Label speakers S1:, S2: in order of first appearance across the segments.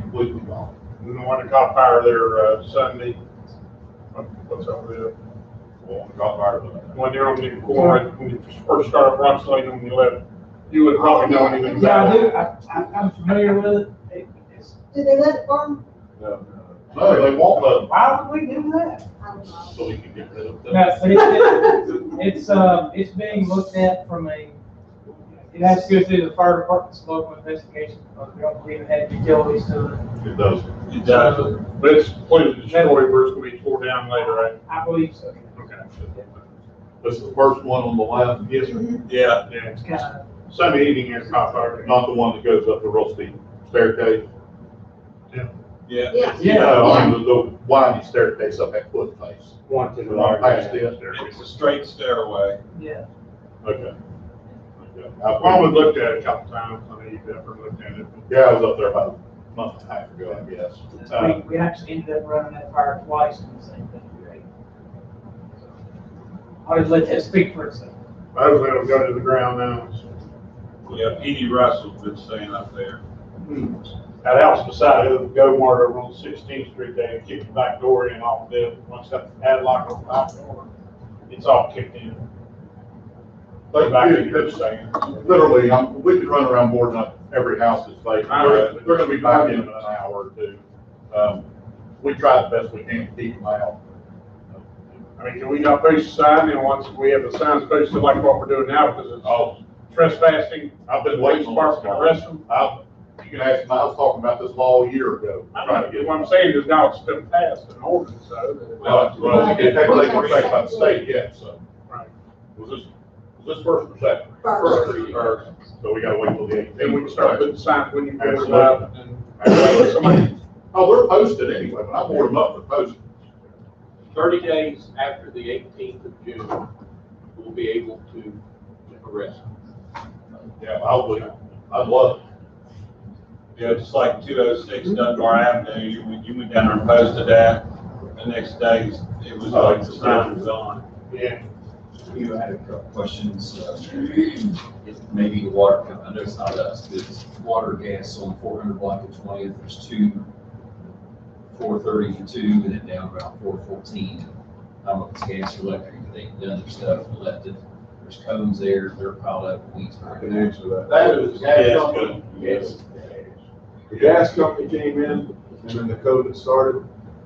S1: completely gone. And then when it caught fire there, uh, Sunday, what- what's up with it?
S2: Well, we got fire.
S1: When they're on the corner, when you first started Rock Lane on the left, you would probably know anything
S3: Yeah, I
S1: about
S3: do,
S1: it.
S3: I, I- I'm familiar with it. it. it's-
S4: Do they let it burn?
S2: No, they won't
S3: Why would we do that?
S4: I don't know.
S2: let, so we can get rid of them.
S3: No, but it's, it's, uh, it's being looked at from a, it has to go through the fire department's local investigation, because we don't believe it had utilities to it.
S2: It does.
S1: It does. But it's completely destroyed, where it's gonna be tore down later, right?
S3: I believe so.
S1: Okay.
S2: That's the first one on the left. Yes, sir. Yeah,
S1: Yeah.
S3: It's kind of,
S1: Sunday evening, it caught fire.
S2: not the one that goes up the real steep staircase.
S5: Yeah.
S4: Yeah.
S3: Yeah.
S2: No, I mean, the, the windy staircase up that cliff face.
S1: One to
S2: the right.
S1: Past this.
S5: It's a straight stairway.
S3: yeah.
S2: Okay. Okay.
S1: I probably looked at it a couple times, I mean, you've never looked at it.
S2: Yeah, I was up there about a month and a half ago, I guess.
S1: Uh,
S3: We, we actually ended up running that fire twice in the same thing. I'll just let that speak for itself.
S1: I was gonna go to the ground now.
S5: Yeah, Edie Russell's been staying up there.
S1: Hmm. That house beside it, Go Mart over on Sixteenth Street, they had kicked the back door in off the, once that padlock on the back door, it's all kicked in. The back of your thing.
S2: Literally, um, we could run around boarding up every house that's vacant.
S1: I know.
S2: They're, they're gonna be back in an hour or two. Um, we try the best we can to keep them out.
S1: I mean, can we not post a sign, and once we have the signs posted like what we're doing now, because it's
S2: Oh,
S1: trespassing,
S2: I've been waiting
S1: Police
S2: on
S1: department arrest
S2: this.
S1: them?
S2: I, you can ask, them. I was talking about this law a year ago.
S1: I
S2: trying to
S1: don't
S2: get-
S1: know, what I'm saying is now it's been passed and ordered, so.
S2: Well, well, it takes effect by the state yet, so.
S1: Right.
S2: Was this, was this first or second?
S4: First.
S2: First. So we gotta wait till the eighteenth.
S1: Then we can start putting signs when you go
S2: Absolutely.
S1: out and. Somebody-
S2: Oh, they're posted anyway, when I board them up, they're posted.
S6: Thirty days after the eighteenth of June, we'll be able to arrest.
S2: Yeah, I'll, be- I'd love it.
S5: Yeah, just like two oh six Dunbar Avenue, you went, you went down there and posted that. The next day, it was like the sign was on.
S1: Yeah,
S7: You had a couple questions, uh, if maybe the water, company- I know it's not us, but it's water, gas on four hundred block of twentieth, there's two, four thirty for two, and then down around four fourteen. I don't know if it's gas or electric, but they've done their stuff, left it, there's cones there, they're piled up, weeds. are-
S5: answer
S8: That is the
S5: Yeah,
S8: gas
S5: it's
S8: company.
S5: good. Yes.
S8: The gas company came in, and then the COVID started,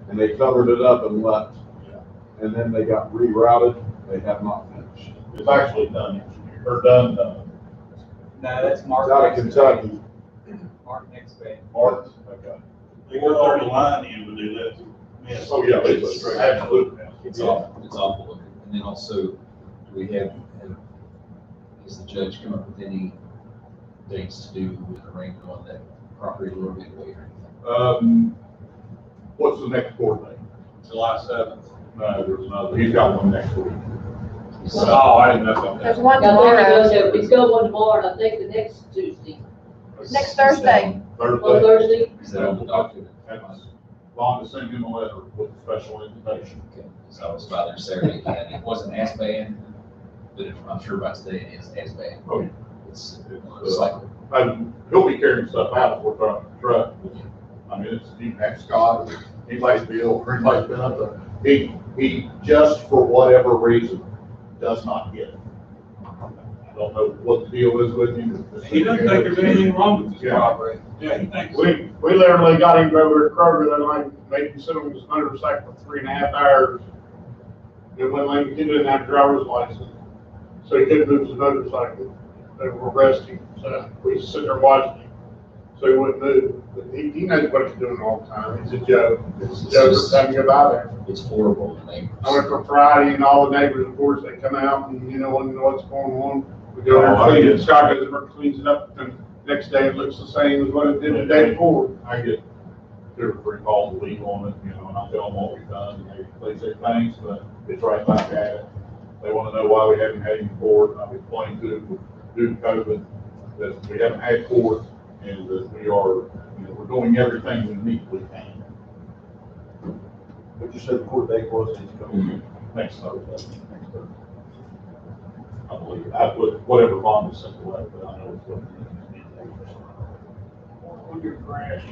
S8: and they covered it up and left. And then they got rerouted, they have not finished.
S2: It's actually done, or done, done.
S7: No, that's
S8: It's out of Kentucky,
S7: Mark next bay.
S2: March, okay.
S5: They were on the line in when they left. Yes.
S2: Oh, yeah, it's absolutely.
S7: It's awful, it's awful looking. And then also, do we have, have- has the judge come up with any dates to do with the rain on that property a little bit later?
S2: Um, what's the next court date?
S5: July seventh.
S2: No, there's another, he's got one next week.
S5: Oh, I didn't know about that.
S9: There's one
S4: Yeah,
S9: tomorrow.
S4: there's a- It's going one tomorrow, and I think the next Tuesday,
S9: Next Thursday.
S4: on
S2: Thursday.
S4: Thursday.
S7: Is that on the document?
S2: That's- Long to send him a letter with a special invitation.
S7: Okay, So I was by there Saturday, and it wasn't as bad, but it- I'm sure by today it is as bad.
S2: Oh, yeah.
S7: It's, it's like,
S2: And he'll be carrying stuff out of the truck, truck. I mean, it's, you can ask Scott, or anybody's Bill, or anybody's been up there. He, he, just for whatever reason, does not get it. I don't know what the deal is with him.
S5: He doesn't think there's anything wrong with this
S2: Yeah.
S5: property. Yeah, he thinks.
S1: we, we literally got him over to Kroger, then like, made him sit on his motorcycle for three and a half hours. And when like, he didn't have a driver's license, so he couldn't move his motorcycle, they were arresting, so we just sit there watching him. So he wouldn't move, but he, he knows what he's doing all the time, it's a joke, it's a joke, every time you go by there.
S7: it's horrible, and they.
S1: I went for Friday and all the neighbors, of course, they come out and, you know, wanna know what's going on. We go there, and clean it, Scott goes over and cleans it up, and next day it looks the same as what it did the day before.
S2: I get two or three calls a week on it, you know, and I tell them what we've done, and they, they say thanks, but it's right back at it. They wanna know why we haven't had any court, and I've explained to them, due to COVID, that we haven't had court, and that we are, you know, we're doing everything we need to can.
S8: but you said the court date was, it's coming.
S2: Next Thursday, next Thursday. I believe, I put whatever bond is sent away, but I know it's what.
S1: On your grass.